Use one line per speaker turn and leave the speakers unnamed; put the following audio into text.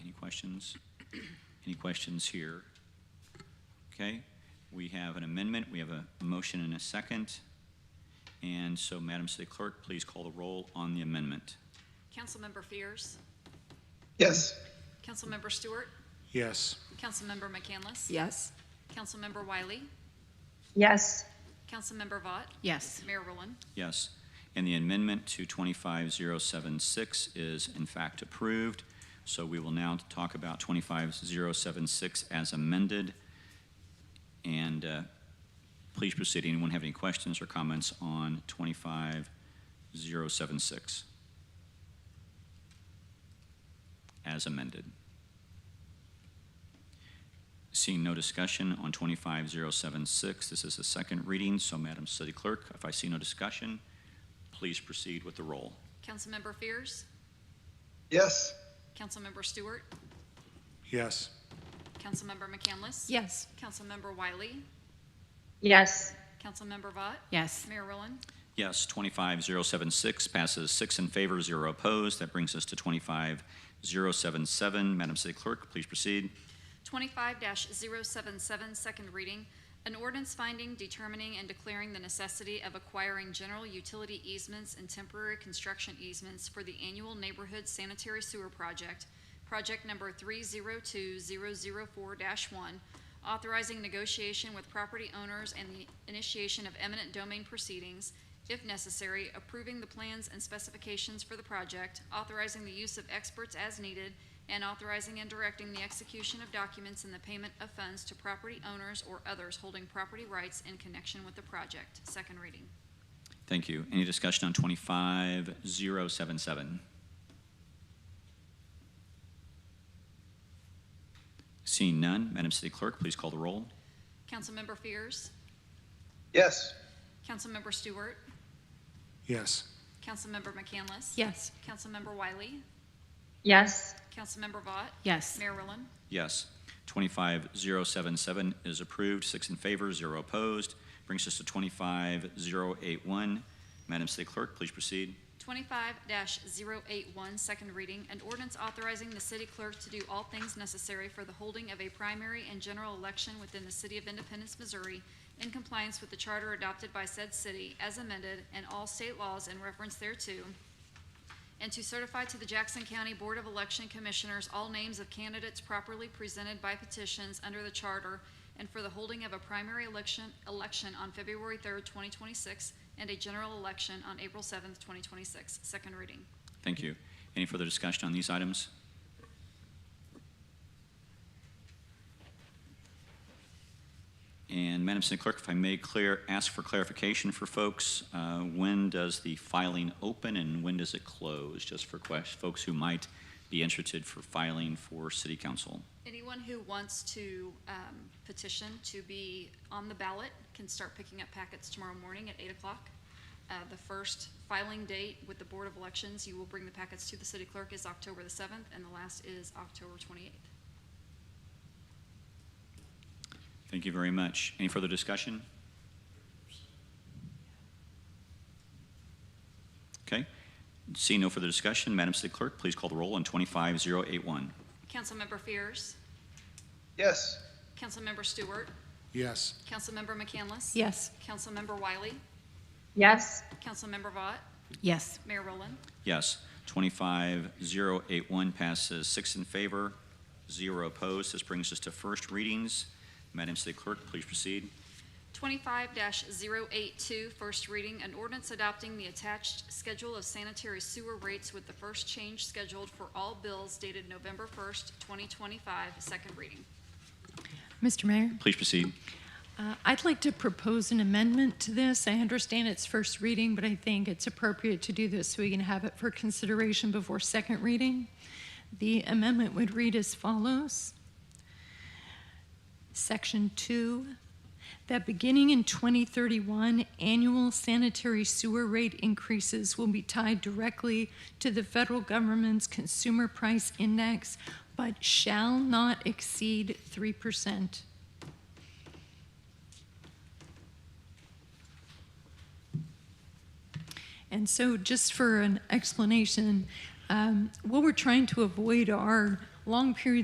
questions? Any questions here? Okay, we have an amendment, we have a motion and a second. And so Madam City Clerk, please call the roll on the amendment.
Councilmember Fears,
Yes.
Councilmember Stewart,
Yes.
Councilmember McCandless,
Yes.
Councilmember Wiley,
Yes.
Councilmember Vought,
Yes.
Mayor Rowland.
Yes. And the amendment to 25076 is in fact approved. So we will now talk about 25076 as amended. And uh, please proceed. Anyone have any questions or comments on 25076? As amended. Seeing no discussion on 25076, this is the second reading, so Madam City Clerk, if I see no discussion, please proceed with the roll.
Councilmember Fears,
Yes.
Councilmember Stewart,
Yes.
Councilmember McCandless.
Yes.
Councilmember Wiley,
Yes.
Councilmember Vought,
Yes.
Mayor Rowland.
Yes, 25076 passes six in favor, zero opposed. That brings us to 25077. Madam City Clerk, please proceed.
Twenty-five 77 second reading, an ordinance finding, determining, and declaring the necessity of acquiring general utility easements and temporary construction easements for the annual neighborhood sanitary sewer project, project number three zero two zero zero four one, authorizing negotiation with property owners and the initiation of eminent domain proceedings, if necessary, approving the plans and specifications for the project, authorizing the use of experts as needed, and authorizing and directing the execution of documents and the payment of funds to property owners or others holding property rights in connection with the project. Second reading.
Thank you. Any discussion on 25077? Seeing none, Madam City Clerk, please call the roll.
Councilmember Fears,
Yes.
Councilmember Stewart,
Yes.
Councilmember McCandless.
Yes.
Councilmember Wiley,
Yes.
Councilmember Vought,
Yes.
Mayor Rowland.
Yes. 25077 is approved, six in favor, zero opposed. Brings us to 25081. Madam City Clerk, please proceed.
Twenty-five 81 second reading, an ordinance authorizing the city clerk to do all things necessary for the holding of a primary and general election within the city of Independence, Missouri, in compliance with the charter adopted by said city as amended and all state laws in reference thereto, and to certify to the Jackson County Board of Election Commissioners all names of candidates properly presented by petitions under the charter and for the holding of a primary election, election on February 3rd, 2026, and a general election on April 7th, 2026. Second reading.
Thank you. Any further discussion on these items? And Madam City Clerk, if I may clear, ask for clarification for folks, uh, when does the filing open and when does it close? Just for quest- folks who might be interested for filing for city council.
Anyone who wants to um, petition to be on the ballot can start picking up packets tomorrow morning at 8 o'clock. Uh, The first filing date with the Board of Elections, you will bring the packets to the city clerk, is October the 7th, and the last is October 28th.
Thank you very much. Any further discussion? Okay. Seeing no further discussion, Madam City Clerk, please call the roll on 25081.
Councilmember Fears,
Yes.
Councilmember Stewart,
Yes.
Councilmember McCandless.
Yes.
Councilmember Wiley,
Yes.
Councilmember Vought,
Yes.
Mayor Rowland.
Yes. 25081 passes six in favor, zero opposed. This brings us to first readings. Madam City Clerk, please proceed.
25-082, first reading, an ordinance adopting the attached schedule of sanitary sewer rates with the first change scheduled for all bills dated November 1st, 2025, second reading.
Mr. Mayor,
Please proceed.
uh, I'd like to propose an amendment to this. I understand it's first reading, but I think it's appropriate to do this so we can have it for consideration before second reading. The amendment would read as follows. Section 2, that beginning in 2031, annual sanitary sewer rate increases will be tied directly to the federal government's consumer price index, but shall not exceed 3%. And so, just for an explanation, um, what we're trying to avoid are long periods